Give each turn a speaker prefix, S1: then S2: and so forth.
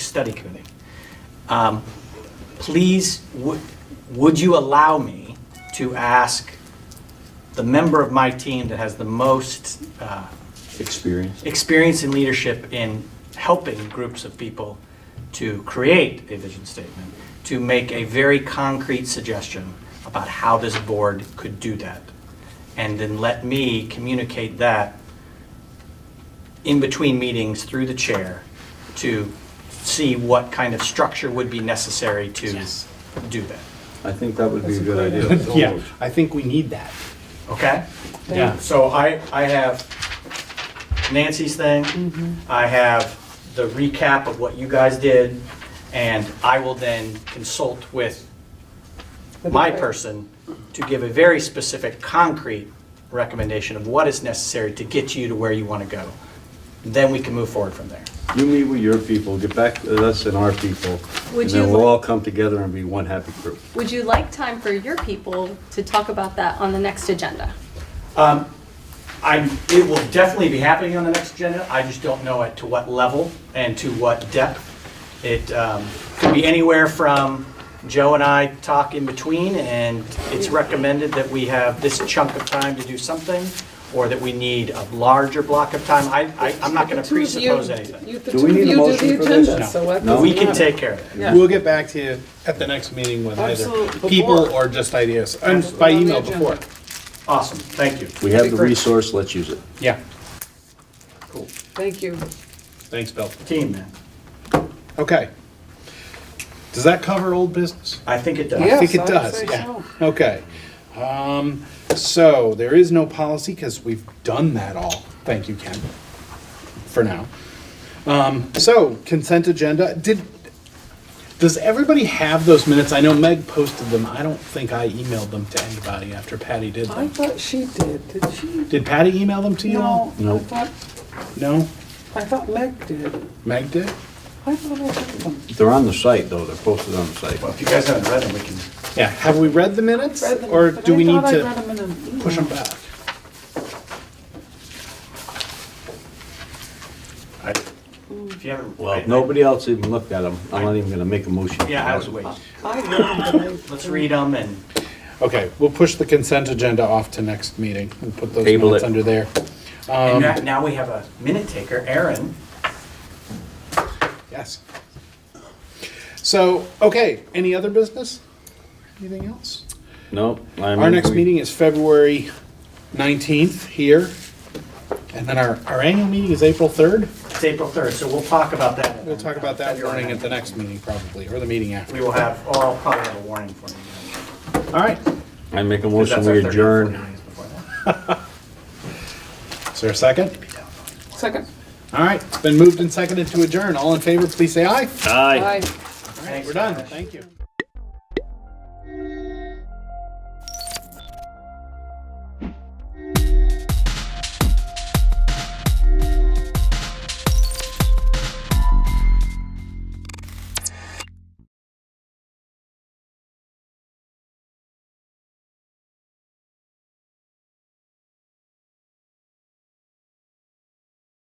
S1: Study Committee. Um, Please, would would you allow me to ask the member of my team that has the most uh,
S2: experience.
S1: experience in leadership in helping groups of people to create a vision statement, to make a very concrete suggestion about how this board could do that. And then let me communicate that in between meetings through the chair to see what kind of structure would be necessary to do that.
S2: I think that would be a good idea.
S3: Yeah, I think we need that.
S1: Okay?
S3: Yeah.
S1: So I, I have Nancy's thing, I have the recap of what you guys did, and I will then consult with my person to give a very specific, concrete recommendation of what is necessary to get you to where you want to go. Then we can move forward from there.
S2: You meet with your people, get back to us and our people, and
S4: Would
S2: then
S4: you
S2: we'll
S4: like-
S2: all come together and be one happy group.
S4: Would you like time for your people to talk about that on the next agenda?
S1: I, Um, it will definitely be happening on the next agenda, I just don't know at to what level and to what depth. It um, could be anywhere from Joe and I talk in between, and it's recommended that we have this chunk of time to do something, or that we need a larger block of time. I, I- I'm not going to
S5: Two of you-
S1: presuppose anything.
S5: you- The
S2: Do
S5: two
S2: we
S5: of
S2: need a
S5: you do
S2: motion
S5: the
S2: for this?
S5: agenda,
S2: No.
S5: so that
S2: No.
S5: doesn't
S1: We can
S5: matter.
S1: take care of it.
S5: Yeah.
S3: We'll get back to you at the next meeting with either
S5: Absolutely.
S3: people
S5: Before.
S3: or just ideas, and by
S5: On the
S3: email
S5: agenda.
S3: before.
S1: Awesome, thank you.
S2: We have
S5: Be
S2: the
S5: great.
S2: resource, let's use it.
S3: Yeah,
S1: Cool.
S5: Thank you.
S3: thanks, Bill.
S1: Team, man,
S3: Okay. Does that cover old business?
S1: I think it
S3: I
S1: does.
S5: Yeah.
S3: think it
S5: Yes, I would
S3: does,
S5: say
S3: yeah.
S5: so.
S3: Okay. Um, So there is no policy because we've done that all. Thank you, Ken, for now. Um, So consent agenda, did, does everybody have those minutes? I know Meg posted them. I don't think I emailed them to anybody after Patty did
S5: I
S3: them.
S5: thought she did, did she?
S3: Did Patty email them to you
S5: No,
S3: all?
S5: I
S2: No.
S5: thought,
S3: No?
S5: I thought Meg did.
S3: Meg did?
S5: I thought I did them.
S2: They're on the site, though, they're posted on the site.
S1: Well, if you guys haven't read them, we can,
S3: Yeah, have we read the minutes?
S5: Read them,
S3: Or
S5: but
S3: do
S5: I
S3: we need
S5: thought I read
S3: to
S5: them in an email.
S3: push them back?
S1: I- if you haven't.
S2: Well, nobody else even looked at them, I'm not even gonna make a motion.
S1: Yeah, I was waiting.
S5: I read them, but I-
S1: Let's read them and.
S3: Okay, we'll push the consent agenda off to next meeting and put those
S2: Table
S3: minutes
S2: it.
S3: under there.
S2: Um,
S1: And now, now we have a minute taker, Aaron.
S3: Yes. So, okay, any other business? Anything else?
S2: No, I mean.
S3: Our next
S2: we-
S3: meeting is February 19th here. And then our, our annual meeting is April 3rd.
S1: It's April 3rd, so we'll talk about that.
S3: We'll talk about that warning at the next meeting probably, or the meeting after.
S1: We will have, or I'll probably have a warning for you.
S3: All right.
S2: I make a
S1: Because
S2: motion,
S1: that's
S2: we
S1: our 30 or 40
S2: adjourn.
S1: days before that.
S3: Is there a second?
S5: Second.
S3: All right, it's been moved and seconded to adjourn. All in favor, please say aye.
S2: Aye.
S5: Aye.
S3: All right, we're done. Thank you.